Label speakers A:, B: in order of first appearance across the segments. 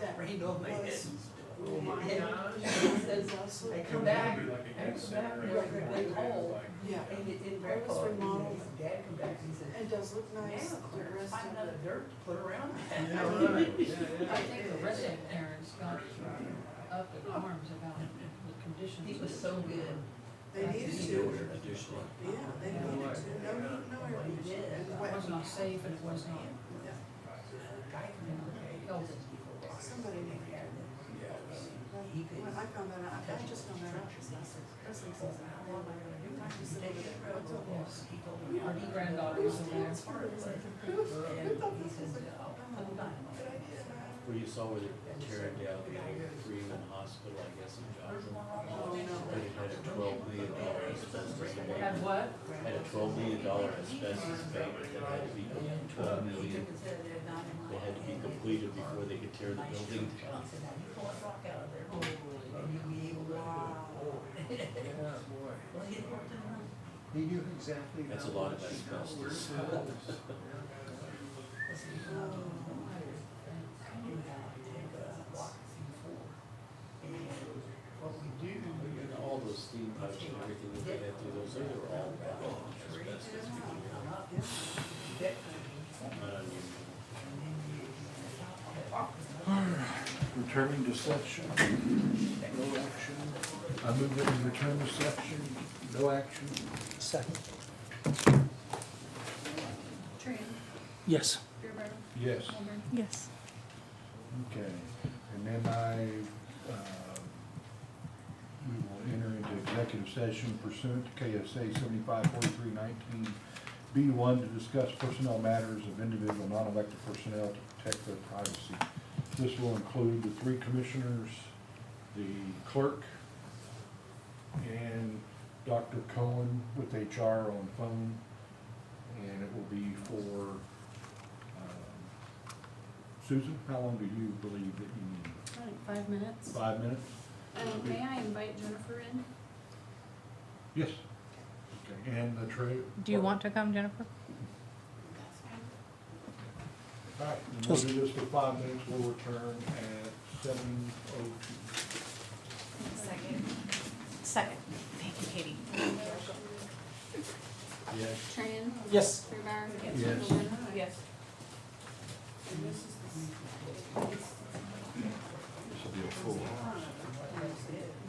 A: that rained on my head.
B: Oh my
A: And-
B: gosh.
A: There's also-
B: I
A: And
B: come back, I
C: Like a
B: come back,
C: center.
B: and like a big hole,
A: Yeah,
B: and it, it
A: Where was
B: was remodeled.
A: remodeled?
B: Dad come back and he said,
A: it does look
B: now
A: nice, the
B: clear,
A: rest
B: find
A: of
B: another dirt to put around
C: Yeah,
B: that.
C: right. Yeah, yeah.
D: I think the resident parents got up in arms about the conditions.
B: He was so good.
A: it, they needed
B: He
A: to,
B: ordered
E: Additional.
A: yeah, they needed to, no, no, no, air
B: What he did.
A: conditioning. And
D: It
A: what-
D: was not safe and it was not,
A: yeah,
B: a Guy came in and held it.
A: Somebody named Aaron. Well,
B: He could-
A: When I found that out, I just found that out this last, this last season, how long am I gonna do, I just said, what's up?
B: Yes, he told me, our granddaughter was in there.
A: It's hard, it's like,
B: And he says, oh, I'm not.
A: good idea, man.
E: Where you saw where they're tearing down the old Freeman Hospital, I guess, in Joplin.
A: Oh,
E: But
A: no.
E: it had a twelve million dollar asbestos
D: had
E: bank.
D: what?
E: Had a twelve million dollar asbestos bank that had to be, twelve
B: He
E: million,
B: took his head and nodded.
E: that had to be completed before they could tear the building down.
B: Johnson, now you pull a rock out of there, oh, and you'll be able to.
A: Wow.
C: Yeah, boy.
B: Well, he had worked in the,
C: He knew exactly.
E: That's
C: how
E: a lot of
C: much he
E: asbestos.
C: was.
B: was he, uh, I knew how to take a block before. And what we do, we
E: And all those steam pipes and everything that they had through those, they were all bad asbestos.
B: hung up
A: Yeah.
B: deck and
E: Not unusual.
B: then you,
F: Returning to section, no action. I move that we return to section, no action.
G: Second.
D: Tran,
G: Yes.
D: Fairbrother,
F: Yes.
D: Holman,
H: Yes.
F: Okay, and then I, uh, we will enter into executive session pursuant to KSA seventy-five forty-three nineteen B one to discuss personnel matters of individual non-elected personnel to protect their privacy. This will include the three commissioners, the clerk, and Dr. Cohen with HR on phone. And it will be for, um, Susan, how long do you believe that you need?
H: Like five minutes.
F: Five minutes?
H: Um, may I invite Jennifer in?
F: Yes. Okay, and the trade.
H: Do you want to come, Jennifer?
F: All right, and we'll do this for five minutes, we'll return at seven oh two.
D: Second.
H: Second. Thank you, Katie.
F: Yes.
H: Tran,
G: Yes.
H: Fairbrother.
F: Yes.
H: Holman.
D: Yes.
A: And this is the
F: This will be a full house.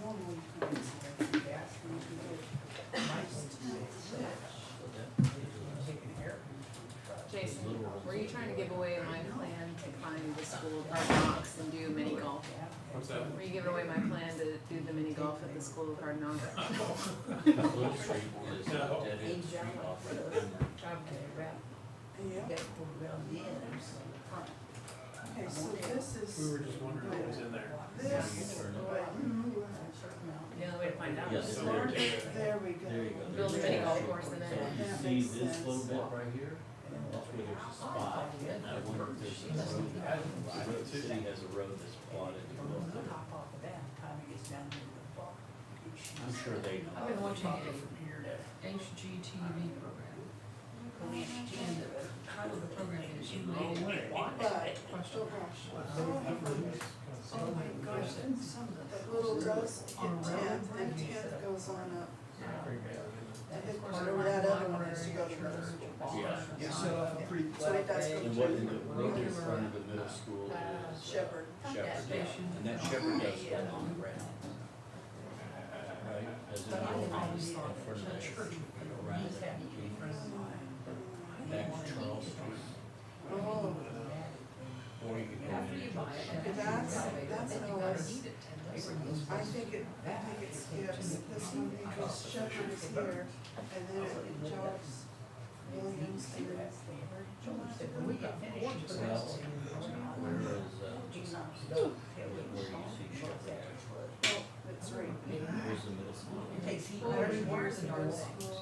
A: normally
I: Jason, were you trying to give away my plan to climb the school of hard knocks and do mini golf?
C: What's that?
I: Were you giving away my plan to do the mini golf at the school of hard knocks?
E: Blue Street is a dead end street off of Denver.
A: Yeah,
B: That pulled around the end, there's the front.
A: okay, so this
C: We
A: is,
C: were just wondering what was in there.
A: this,
E: Turn it.
I: The only way to find out
E: Yes,
I: is
E: so
I: to
E: there's-
A: mm-hmm, there we go.
E: There you go.
I: build a mini golf course and
E: So
I: then
A: That
E: you
A: makes
E: see this
A: sense.
E: little bit right here, that's where there's a spot, and I wonder if there's a road, the road- city has a road that's plotted. to go
B: From the
E: through.
B: top off of that, time it gets down to the block.
E: I'm sure they know.
D: I've been watching a
B: Probably From here to.
D: HGTV program,
B: Police
D: and
B: chief.
D: the title of the program is You Made It Work.
A: But,
D: Question.
A: oh gosh, oh,
B: Oh my gosh,
D: and some of the.
A: that little dust,
D: On
A: tenth,
D: road.
A: and tenth goes on up. I think
D: Or
A: whatever that other one
D: library
A: is, you go to
D: or
A: those.
E: Yeah.
C: You set up a pretty
A: So it
C: flat
A: does
C: bank.
A: go
E: And what in the road in front of the middle school is.
A: Shepherd.
E: Shepherd, yeah, and that shepherd does go on the ground. Right, as in the old days, in front of the church, you go around it, back to Charles Street,
A: Oh,
E: or you can go
D: After you
E: in.
D: buy it.
A: Okay, that's- that's
D: You
A: an
D: gotta
A: OS.
D: need it, and those-
A: I think it, I think it skips this one because Shepherd is here, and then it jogs Williams here.
B: When we get finished, put
E: Well,
B: us in the-
E: Whereas, uh, where you see shepherd,
A: Oh, that's right.
E: where's the middle school?
B: It takes heat.
A: There's
B: There's years
A: Warren's
B: and
A: Yard
B: years.
A: School,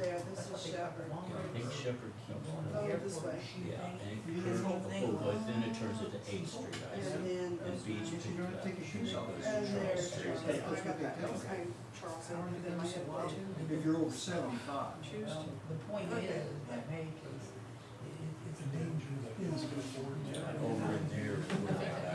A: there, this is Shepherd.
E: I think shepherd keeps
A: Oh,
E: on.
A: this way.
E: Yeah, and it turns, oh, but then it turns into Eighth Street, I see.
A: And then.
E: And Beach
A: And
E: picks up, and then goes to Charles
A: there's Charles,
E: Street.
A: I got that, that was kind of Charles, I don't think I had one.
B: If
C: If you're over seventy-five.
B: Choose to. The point is,
A: Okay.
B: that make is, it- it's a danger.
E: Over in uh, there, where that